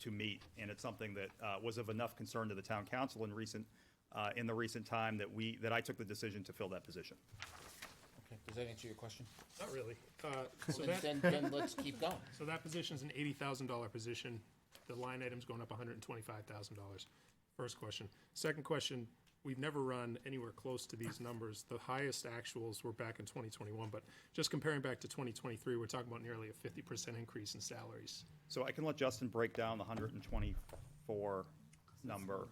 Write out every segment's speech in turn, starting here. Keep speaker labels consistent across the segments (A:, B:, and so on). A: to meet. And it's something that uh, was of enough concern to the town council in recent, uh, in the recent time that we, that I took the decision to fill that position.
B: Okay, does that answer your question?
C: Not really. Uh, So
B: Then,
C: that,
B: then, then let's keep going.
C: so that position's an eighty thousand dollar position. The line item's going up hundred and twenty-five thousand dollars. First question. Second question, we've never run anywhere close to these numbers. The highest actuals were back in twenty twenty-one, but just comparing back to twenty twenty-three, we're talking about nearly a fifty percent increase in salaries.
A: So I can let Justin break down the 124 number,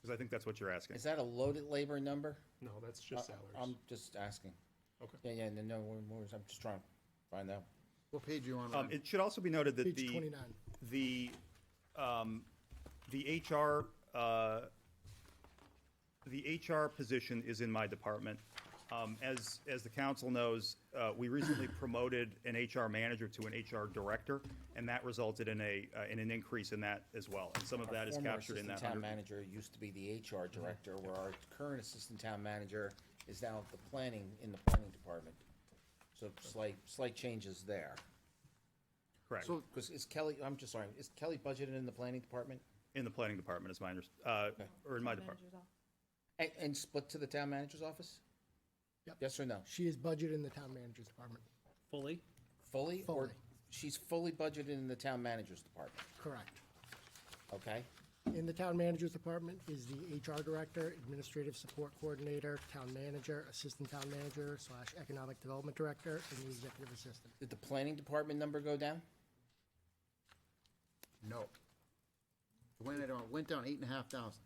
A: because I think that's what you're asking.
B: Is that a loaded labor number?
C: No, that's just salaries.
B: I'm just asking.
C: Okay.
B: Yeah, yeah, no, no, we're- we're- I'm just trying to find out.
D: What page you on?
A: Um,
D: Ryan?
A: It should also be noted that
D: Page
A: the.
D: 29.
A: The, um, the HR, uh, the HR position is in my department. Um, As, as the council knows, uh, we recently promoted an HR manager to an HR director, and that resulted in a, uh, in an increase in that as well. And some of that is
B: Former
A: captured in
B: assistant
A: that
B: Town
A: 100
B: manager used to be the HR director, where our current assistant town manager is now the planning, in the planning department. So slight, slight changes there.
A: correct,
B: Because is Kelly, I'm just sorry, is Kelly budgeted in the planning department?
A: in the planning department is my, under- uh, or in my department.
B: And, and split to the town manager's office?
D: Yep.
B: Yes or no?
D: She is budgeted in the town manager's department.
E: Fully?
B: Fully? or
D: Fully.
B: She's fully budgeted in the town manager's department,
D: Correct.
B: okay?
D: In the town manager's department is the HR director, administrative support coordinator, town manager, assistant town manager slash economic development director, and the executive assistant.
B: Did the planning department number go down?
F: No. It Went down, went down eight and a half thousand.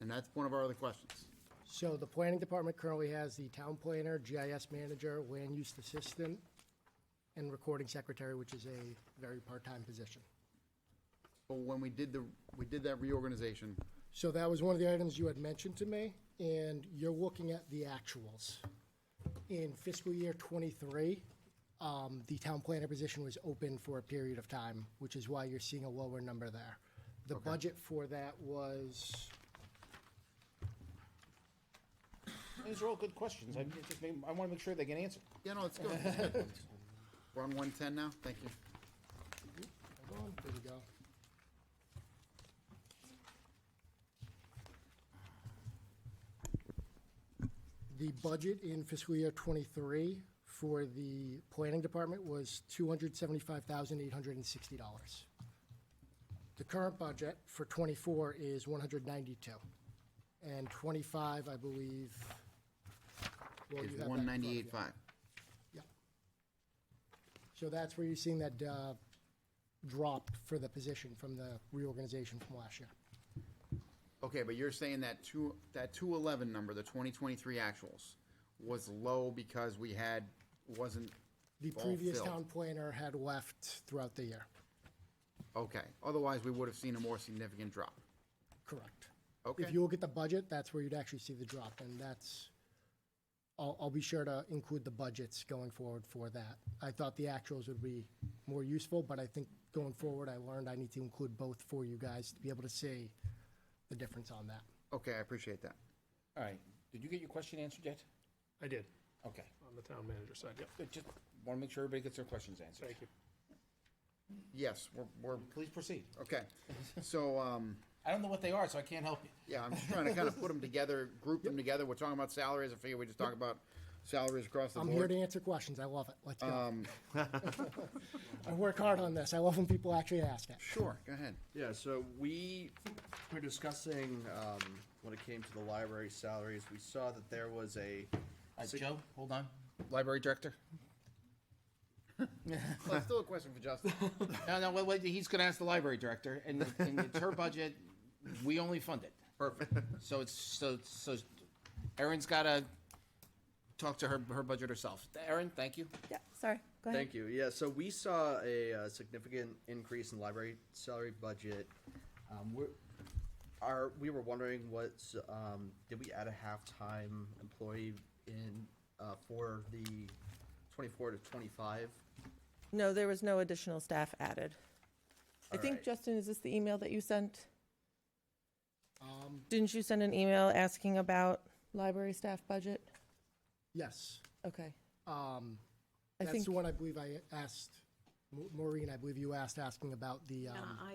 F: And that's one of our other questions.
D: So the planning department currently has the town planner, GIS manager, land use assistant, and recording secretary, which is a very part-time position.
F: But when we did the, we did that reorganization,
D: So that was one of the items you had mentioned to me, and you're looking at the actuals. In fiscal year twenty-three, um, the town planner position was open for a period of time, which is why you're seeing a lower number there. The budget for that was,
B: These are all good questions. I it just, made- I want to make sure they get answered.
F: yeah, no, it's good. We're on one ten now, thank you.
D: hold on, there we go. The budget in fiscal year twenty-three for the planning department was two hundred seventy-five thousand eight hundred and sixty dollars. The current budget for twenty-four is one hundred ninety-two, and twenty-five, I believe. well, Oh, you have that in
F: It's
D: front of
F: one
D: you.
F: ninety-eight five.
D: Yep. So that's where you're seeing that uh, drop for the position from the reorganization from last year.
F: Okay, but you're saying that two, that two eleven number, the twenty twenty-three actuals, was low because we had, wasn't
D: The
F: all
D: previous
F: filled.
D: town planner had left throughout the year.
F: Okay, otherwise we would have seen a more significant drop.
D: Correct.
F: Okay.
D: If you look at the budget, that's where you'd actually see the drop, and that's, I'll, I'll be sure to include the budgets going forward for that. I thought the actuals would be more useful, but I think going forward, I learned I need to include both for you guys to be able to see the difference on that.
F: Okay, I appreciate that.
B: All right, did you get your question answered yet?
C: I did,
B: Okay,
C: on the town manager side, yep.
B: Good, just want to make sure everybody gets their questions answered.
C: Thank you.
F: Yes, we're, we're,
B: Please proceed.
F: okay. So, um,
B: I don't know what they are, so I can't help you.
F: Yeah, I'm just trying to kind of put them together, group them together. We're talking about salaries. I figure we just talk about salaries across the
D: I'm here
F: board.
D: to answer questions. I love it. Let's go. I work hard on this. I love when people actually ask it.
F: Sure, go ahead.
G: Yeah, so we were discussing, um, when it came to the library salaries, we saw that there was a,
B: All right, Joe, hold on.
G: library director?
F: Well, still a question for Justin.
B: No, no, wait, wait, he's going to ask the library director, and, and it's her budget, we only fund it.
F: Perfect.
B: So it's, so, so Erin's got to talk to her, her budget herself. Erin, thank you.
H: Yeah, sorry, go ahead.
G: Thank you. Yeah, so we saw a uh, significant increase in library salary budget. Um, we're, are, we were wondering what's, um, did we add a half-time employee in, uh, for the twenty-four to twenty-five?
H: No, there was no additional staff added. I think,
G: Alright.
H: Justin, is this the email that you sent?
D: Um,
H: Didn't you send an email asking about library staff budget?
D: yes.
H: Okay.
D: Um,
H: I
D: that's
H: think-
D: the one I believe I asked, Ma- Maureen, I believe you asked asking about the, um,
I: Yeah, I